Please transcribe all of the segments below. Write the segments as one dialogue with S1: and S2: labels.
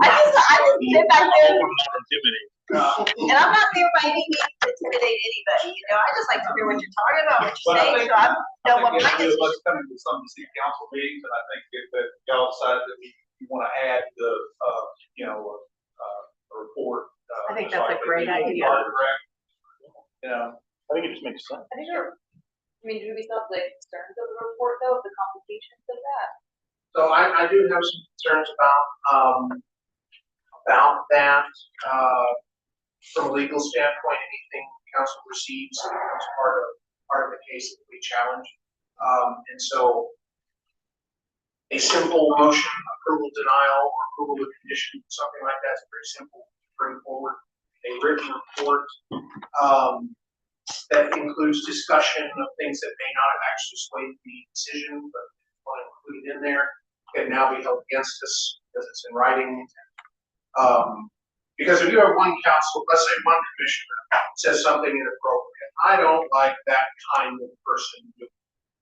S1: I just, I just sit back there
S2: I'm not intimidated.
S1: and I'm not there by any means to intimidate anybody, you know, I just like to hear what you're talking about, what you're
S3: But I
S1: saying,
S3: think-
S1: so I'm,
S3: I
S1: no,
S3: think
S1: what
S3: it's
S1: mine is.
S3: good, Let's come to some of the city council meetings, and I think if that y'all decide that we, you wanna add the, uh, you know, uh, a report. uh,
S4: I think
S3: just
S4: that's a
S3: like they
S4: great
S3: do with
S4: idea.
S3: fire direct, You know,
S2: I think it just makes sense.
S5: I think you're, I mean, do we still have the concerns of the report though, the complications of that?
S6: So I, I do have some concerns about, um, about that, uh, from a legal standpoint, anything council receives becomes part of, part of the case that we challenge. Um, and so a simple motion, approval denial, or approval with condition, something like that's pretty simple, to bring forward. A written report, um, that includes discussion of things that may not have actually swayed the decision, but want included in there can now be held against us because it's in writing. Um, because if you have one council, let's say one commissioner says something inappropriate, I don't like that kind of person doing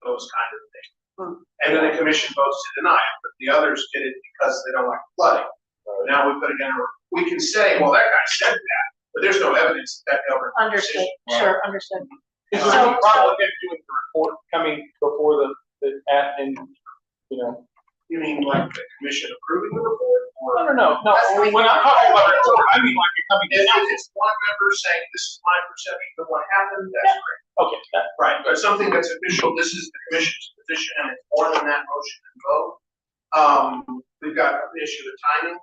S6: those kind of things. And then the commission votes to deny it, but the others did it because they don't like flooding. Now we put it in, a- we can say, well, that guy said that, but there's no evidence that that government.
S4: Understood, sure, understood.
S3: Is
S6: there any
S3: problem
S2: if doing the report coming before the, the, at, and, you know?
S6: You mean like the commission approving the report or?
S2: No, no, no, no,
S6: That's
S2: when I'm talking about a report, I mean like you're coming
S6: If
S2: down.
S6: it's one member saying, this is my perception of what happened, that's great.
S2: Okay, that-
S6: Right, but something that's official, this is the commission's position, and it's more than that motion and vote. Um, we've got an issue with timing,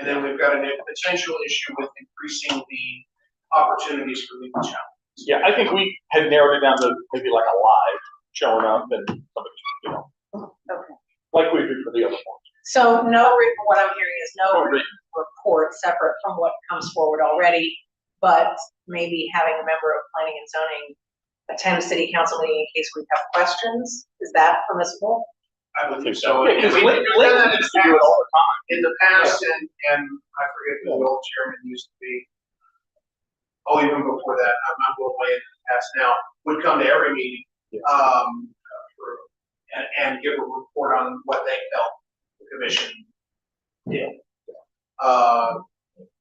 S6: and then we've got a potential issue with increasing the opportunities for legal challenge.
S2: yeah, I think we had narrowed it down to maybe like a live showing up and somebody, you know,
S4: Okay.
S2: like we did for the other one.
S4: So no, re- what I'm hearing is no
S2: Or written.
S4: report separate from what comes forward already, but maybe having a member of planning and zoning attend city council meeting in case we have questions, is that permissible?
S6: I believe so.
S2: Yeah, because
S6: And we-
S2: Lin-
S6: we've
S2: Lin
S6: done that in
S2: used
S6: the
S2: to do it
S6: past.
S2: all the time.
S6: in the past, and, and I forget who the old chairman used to be. Oh, even before that, I'm not going way in the past now, would come to every meeting, um, for- and, and give a report on what they felt, the commission.
S2: Yeah.
S6: Uh,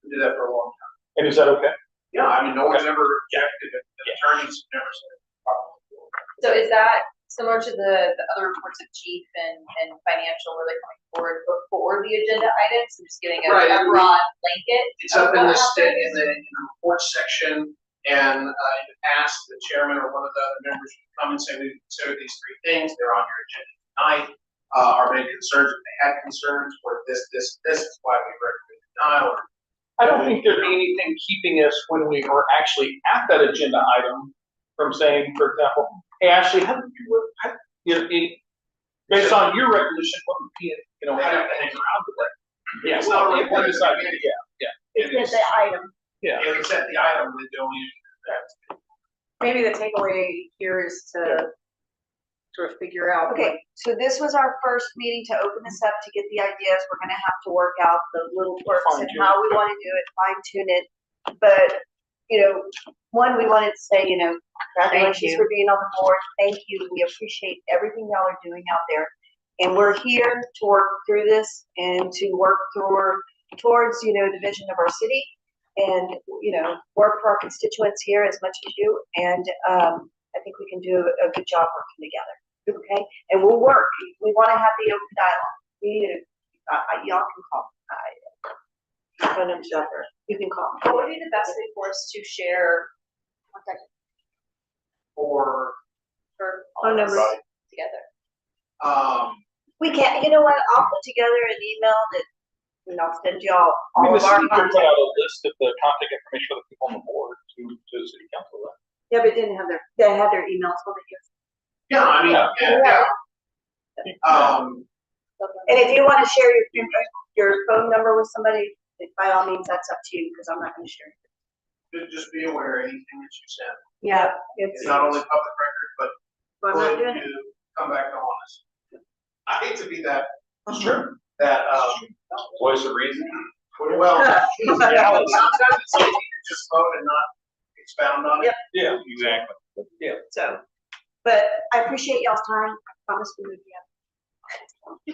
S6: did that for a long time.
S2: And is that okay?
S6: Yeah, I mean, no one's ever objected, the attorneys never said. "Oh,
S5: So is that similar to the, the other reports of chief and, and financial where they're coming forward before the agenda items? I'm just giving a
S6: Right.
S5: a broad blanket.
S6: It's up in
S5: of
S6: the
S5: what
S6: state, in
S5: happens.
S6: the, in the report section, and, uh, you ask the chairman or one of the other members to come and say, we consider these three things, they're on your agenda tonight. Uh, are there any concerns, if they had concerns, or this, this, this is why we recommend denial, or
S2: I don't think there'd be anything keeping us when we were actually at that agenda item from saying, for example, hey, Ashley, how do you, how, you know, in- based on your resolution, what would be, you know, how do you hang around with that? Yeah,
S6: It's not
S2: well,
S6: really-
S2: it would decide, yeah,
S6: It's
S4: the item.
S2: yeah.
S6: if it's at the item, we don't need that.
S4: Maybe the takeaway here is to sort of figure out.
S1: Okay, so this was our first meeting to open this up, to get the ideas, we're gonna have to work out the little quirks and
S2: Fine-tune
S1: how we wanna do it, fine tune it. But, you know, one, we wanted to say, you know, congratulations
S4: you.
S1: for being on the board, thank you, we appreciate everything y'all are doing out there. And we're here to work through this and to work toward, towards, you know, the vision of our city. And, you know, work for our constituents here as much as you, and, um, I think we can do a good job working together, okay? and we'll work. We want to have the open dialogue. We need to, uh, uh, y'all can call. I- Phone number's out there. You can call.
S5: What would be the best way for us to share contact
S6: Or,
S5: for all
S1: Phone
S5: of us
S1: numbers.
S5: together?
S6: um,
S1: We can't, you know what? I'll put together an email that, and I'll send y'all
S2: I mean,
S1: all
S2: the
S1: of our
S2: city could put
S1: contact.
S2: out a list of the contact information for the people on the board to, to the city council, right?
S1: Yeah, but didn't have their, they had their emails on it.
S6: yeah, I mean,
S2: Yeah.
S6: yeah, yeah,
S2: Uh,
S6: um,
S1: And if you want to share your, your phone number with somebody, by all means, that's up to you because I'm not going to share. it.
S6: ju- just be aware, anything that you send,
S1: Yeah,
S6: it's not only public record, but
S1: Well, I'm not
S6: would
S1: doing it.
S6: you come back to honest? I hate to be that,
S2: Sure.
S6: that, um,
S2: Voice of reason.
S6: Well, sometimes it's easy to just vote and not expound on it.
S2: Yeah, exactly.
S1: So, but I appreciate y'all's time. I promise we will be up.